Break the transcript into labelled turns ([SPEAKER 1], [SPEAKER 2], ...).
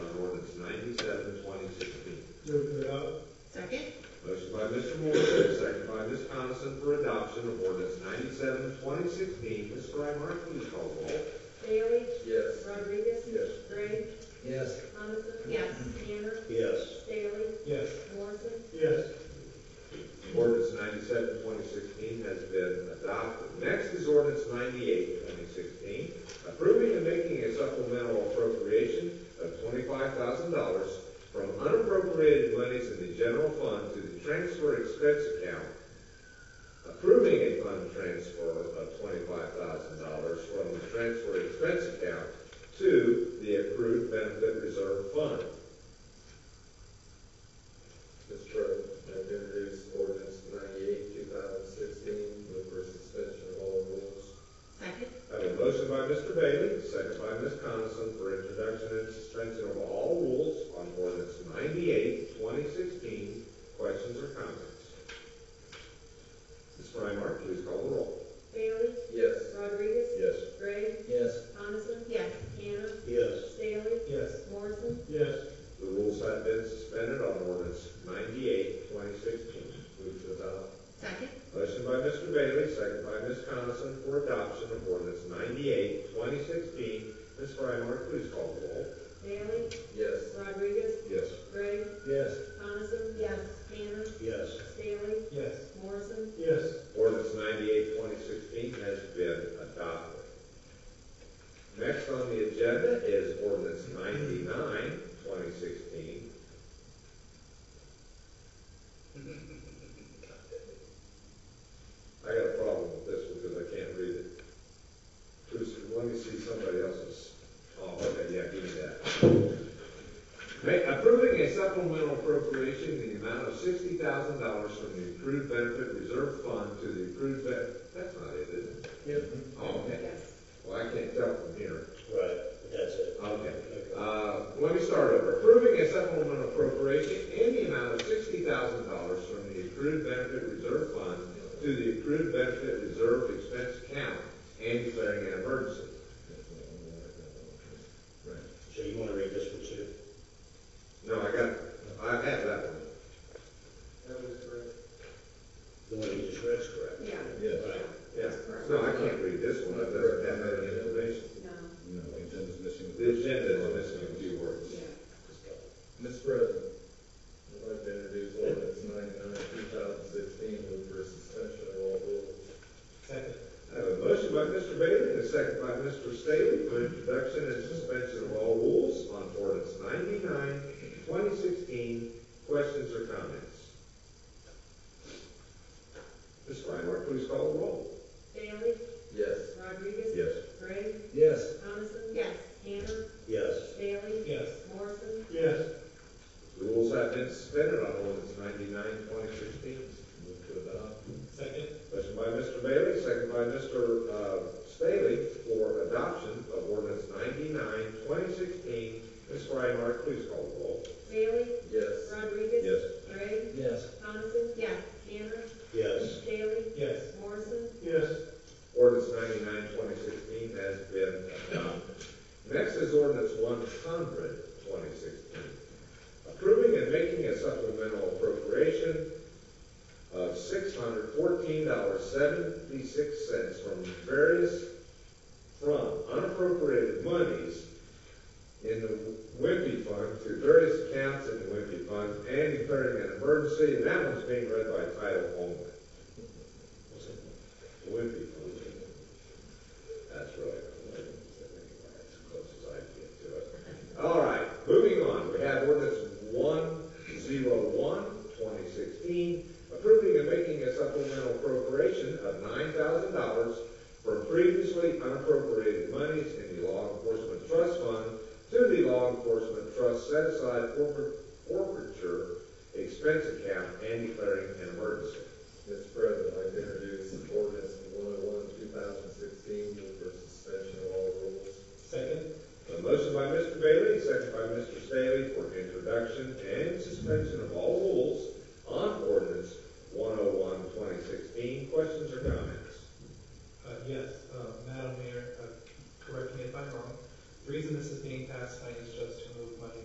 [SPEAKER 1] adoption of ordinance 97, 2016. Mr. Frymeyer, please call the roll.
[SPEAKER 2] Bailey?
[SPEAKER 3] Yes.
[SPEAKER 2] Rodriguez?
[SPEAKER 3] Yes.
[SPEAKER 2] Gray?
[SPEAKER 3] Yes.
[SPEAKER 2] Coniston? Yes. Tanner?
[SPEAKER 4] Yes.
[SPEAKER 2] Bailey?
[SPEAKER 3] Yes.
[SPEAKER 2] Morrison?
[SPEAKER 3] Yes.
[SPEAKER 1] Ordinance 97, 2016 has been adopted. Next is ordinance 98, 2016, approving and making a supplemental appropriation of twenty-five thousand dollars from unappropriated monies in the general fund to the transfer expense account, approving a fund transfer of twenty-five thousand dollars from the transfer expense account to the accrued benefit reserve fund.
[SPEAKER 3] Mr. President, I introduce ordinance ninety-eight, two thousand sixteen, move for suspension of all rules.
[SPEAKER 5] Second?
[SPEAKER 1] I have a motion by Mr. Bailey, second by Ms. Coniston for introduction and suspension of all rules on ordinance 98, 2016. Questions or comments? Ms. Frymark, please call the roll.
[SPEAKER 2] Bailey?
[SPEAKER 3] Yes.
[SPEAKER 2] Rodriguez?
[SPEAKER 4] Yes.
[SPEAKER 2] Gray?
[SPEAKER 3] Yes.
[SPEAKER 2] Coniston?
[SPEAKER 5] Yes.
[SPEAKER 2] Tanner?
[SPEAKER 4] Yes.
[SPEAKER 2] Bailey?
[SPEAKER 3] Yes.
[SPEAKER 2] Morrison?
[SPEAKER 3] Yes.
[SPEAKER 1] The rules have been suspended on ordinance 98, 2016. Move to adopt.
[SPEAKER 5] Second?
[SPEAKER 1] Motion by Mr. Bailey, second by Ms. Coniston for adoption of ordinance 98, 2016. Ms. Frymark, please call the roll.
[SPEAKER 2] Bailey?
[SPEAKER 3] Yes.
[SPEAKER 2] Rodriguez?
[SPEAKER 1] Yes.
[SPEAKER 2] Gray?
[SPEAKER 3] Yes.
[SPEAKER 2] Coniston? Yes. Tanner?
[SPEAKER 4] Yes.
[SPEAKER 2] Bailey?
[SPEAKER 3] Yes.
[SPEAKER 2] Morrison?
[SPEAKER 3] Yes.
[SPEAKER 1] Ordinance 98, 2016 has been adopted. Next on the agenda is ordinance 99, 2016. I got a problem with this one because I can't read it. Just let me see somebody else's. Oh, okay, yeah, give me that. Ma- Approving a supplemental appropriation in the amount of sixty thousand dollars from the accrued benefit reserve fund to the accrued ben, that's not it, is it?
[SPEAKER 3] Yep.
[SPEAKER 1] Oh, okay.
[SPEAKER 2] Yes.
[SPEAKER 1] Well, I can't tell from here.
[SPEAKER 4] Right. That's it.
[SPEAKER 1] Okay.
[SPEAKER 4] Okay.
[SPEAKER 1] Uh, let me start over. Approving a supplemental appropriation in the amount of sixty thousand dollars from the accrued benefit reserve fund to the accrued benefit reserve expense account and declaring an emergency.
[SPEAKER 4] So you want to read this one too?
[SPEAKER 1] No, I got, I have that one.
[SPEAKER 3] That was correct.
[SPEAKER 4] The one you just read's correct.
[SPEAKER 5] Yeah.
[SPEAKER 6] Yes.
[SPEAKER 4] Right.
[SPEAKER 1] Yeah. No, I can't read this one. That doesn't have any information.
[SPEAKER 5] No.
[SPEAKER 6] No, the agenda's missing.
[SPEAKER 1] The agenda is missing a few words.
[SPEAKER 5] Yeah.
[SPEAKER 3] Mr. President, I'd like to introduce ordinance ninety-nine, two thousand sixteen, move for suspension of all rules. Second.
[SPEAKER 1] I have a motion by Mr. Bailey and a second by Mr. Staley for introduction and suspension of all rules on ordinance 99, 2016. Questions or comments? Ms. Frymark, please call the roll.
[SPEAKER 2] Bailey?
[SPEAKER 3] Yes.
[SPEAKER 2] Rodriguez?
[SPEAKER 6] Yes.
[SPEAKER 2] Gray?
[SPEAKER 3] Yes.
[SPEAKER 2] Coniston?
[SPEAKER 5] Yes.
[SPEAKER 2] Tanner?
[SPEAKER 4] Yes.
[SPEAKER 2] Bailey?
[SPEAKER 3] Yes.
[SPEAKER 2] Morrison?
[SPEAKER 3] Yes.
[SPEAKER 1] The rules have been suspended on ordinance 99, 2016.
[SPEAKER 3] Move to adopt. Second.
[SPEAKER 1] Motion by Mr. Bailey, second by Mr. uh, Staley for adoption of ordinance 99, 2016. Ms. Frymark, please call the roll.
[SPEAKER 2] Bailey?
[SPEAKER 3] Yes.
[SPEAKER 2] Rodriguez?
[SPEAKER 6] Yes.
[SPEAKER 2] Gray?
[SPEAKER 3] Yes.
[SPEAKER 2] Coniston?
[SPEAKER 5] Yes.
[SPEAKER 2] Tanner?
[SPEAKER 4] Yes.
[SPEAKER 2] Bailey?
[SPEAKER 3] Yes.
[SPEAKER 2] Morrison?
[SPEAKER 3] Yes.
[SPEAKER 1] Ordinance 99, 2016 has been adopted. Next is ordinance 100, 2016, approving and making a supplemental appropriation of $614.76 from various, from unappropriated monies in the Wimpy Fund to various accounts in the Wimpy Fund and declaring an emergency, and that one's being read by title only. Wimpy Fund. That's really, that's as close as I can get to it. All right, moving on, we have ordinance 101, 2016, approving and making a supplemental appropriation of $9,000 from previously unappropriated monies in the Law Enforcement Trust Fund to the Law Enforcement Trust set aside forfeit- forfeiture expense account and declaring an emergency.
[SPEAKER 3] Mr. President, I'd like to introduce ordinance one oh one, two thousand sixteen, move for suspension of all rules. Second.
[SPEAKER 1] A motion by Mr. Bailey, second by Mr. Staley for introduction and suspension of all oh
[SPEAKER 3] uh,